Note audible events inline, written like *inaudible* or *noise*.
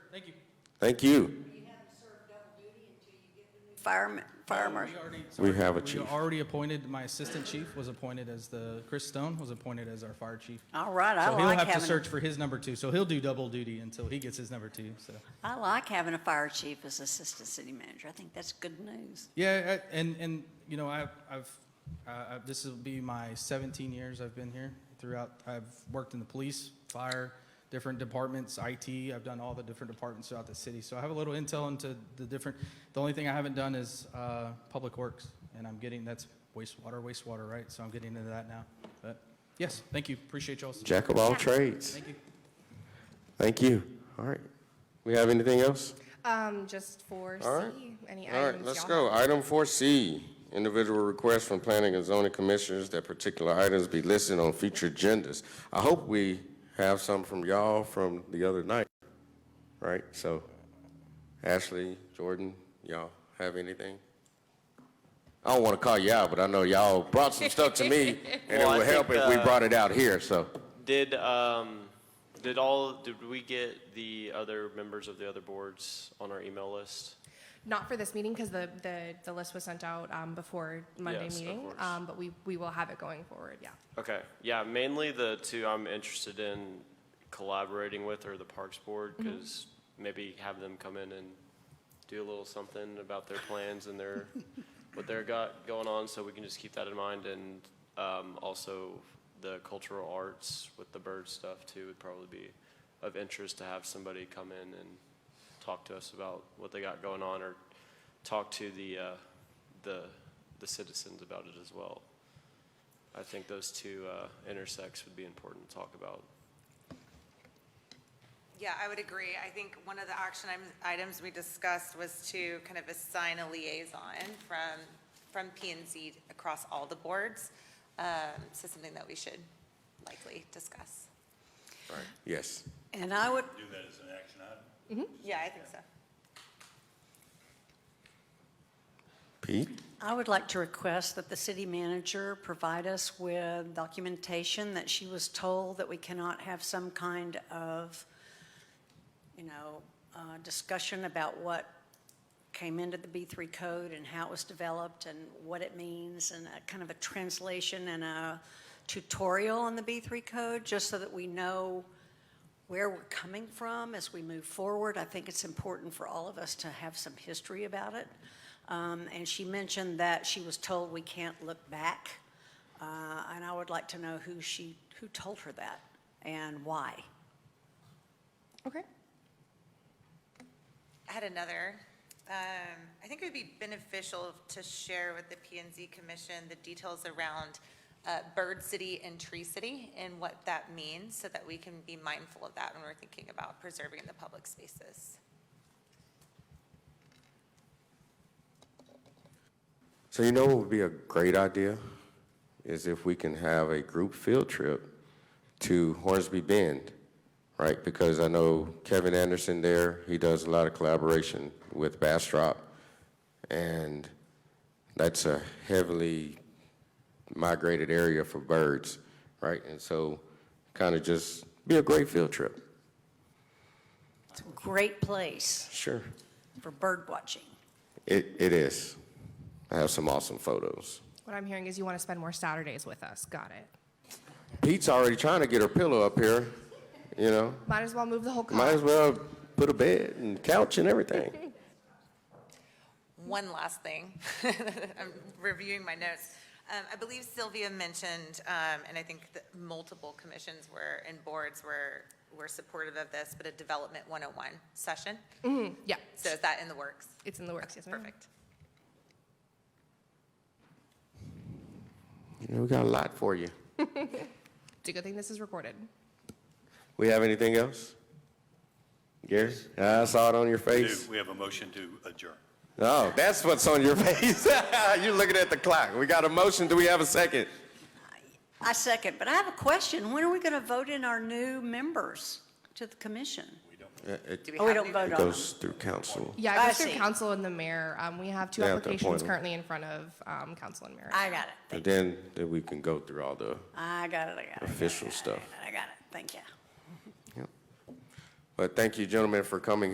Thank you. Thank you. Fire, fire marshal. We already- We have a we chief. already appointed, my assistant chief was appointed as the, Chris Stone was appointed as our fire chief. All right, I So he'll like have to having, search for his number two, so he'll do double duty until he gets his number two, so. I like having a fire chief as assistant city manager. I think that's good news. Yeah, I- and, and, you know, I- I've, uh, this will be my 17 years I've been here throughout. I've worked in the police, fire, different departments, IT. I've done all the different departments throughout the city. So I have a little intel into the different, the only thing I haven't done is uh, Public Works. And I'm getting, that's wastewater, wastewater, right? So I'm getting into that now. But yes, thank you. Appreciate y'all. Jack of all trades. Thank you. Thank you. All right. We have anything else? Um, just for All right. C, any All right, items let's y'all go. have? Item 4C, individual requests from planning and zoning commissioners that particular items be listed on future agendas. I hope we have some from y'all from the other night, right? So Ashley, Jordan, y'all have anything? I don't want to call you out, but I know y'all brought some stuff to me, and it Well, I would help think, if we uh, brought it out here, so. Did, um, did all, did we get the other members of the other boards on our email list? Not for this meeting because the, the, the list was sent out um, before Monday Yes, of meeting. course. Um, but we, we will have it going forward. Yeah. Okay, yeah, mainly the two I'm interested in collaborating with are the Parks Board, because maybe have them come in and do a little something about their plans and their, what they're got going on, so we can just keep that in mind, and um, also the cultural arts with the bird stuff too would probably be of interest to have somebody come in and talk to us about what they got going on, or talk to the, uh, the, the citizens about it as well. I think those two uh, intersects would be important to talk about. Yeah, I would agree. I think one of the action item- items we discussed was to kind of assign a liaison from, from P and Z across all the boards. Um, So something that we should likely discuss. Yes. And I would, Do that as an action item? Yeah, I think so. Pete? I would like to request that the city manager provide us with documentation that she was told that we cannot have some kind of, you know, uh, discussion about what came into the B3 code and how it was developed and what it means and a kind of a translation and a tutorial on the B3 code, just so that we know where we're coming from as we move forward. I think it's important for all of us to have some history about it. Um, And she mentioned that she was told we can't look back, Uh, and I would like to know who she, who told her that and why. Okay. I had another. Um, I think it would be beneficial to share with the P and Z Commission the details around uh, Bird City and Tree City and what that means so that we can be mindful of that when we're thinking about preserving the public spaces. So you know what would be a great idea is if we can have a group field trip to Hornsby Bend, right? Because I know Kevin Anderson there, he does a lot of collaboration with Bastrop, and that's a heavily migrated area for birds, right? And so kind of just be a great field trip. It's a great place Sure. for bird watching. It, it is. I have some awesome photos. What I'm hearing is you want to spend more Saturdays with us. Got it. Pete's already trying to get her pillow up here, you know? Might as well move the whole car. Might as well put a bed and couch and everything. One last thing, *laughs* I'm reviewing my notes. Um, I believe Sylvia mentioned, um, and I think that multiple commissions were, and boards were, were supportive of this, but a Development 101 session. Yeah. So is that in the works? It's in the works. Yes, ma'am. Perfect. You know, we got a lot for you. It's a good thing this is recorded. We have anything else? Gary, I saw it on your Do face. we have a motion to adjourn? Oh, that's what's on your *laughs* face. You're looking at the clock. We got a motion. Do we have a second? I second, but I have a question. When are we going to vote in our new members to the commission? Do Oh, we have don't any- vote Uh, It on them. goes through council. Yeah, I I goes through see. council and the mayor. Um, we have two They have to appoint applications them. currently in front of um, council and mayor. I got it. And Thank- then, then we can go through all the, I got it, I got it. Official stuff. I got it, thank you. but thank you, gentlemen, for coming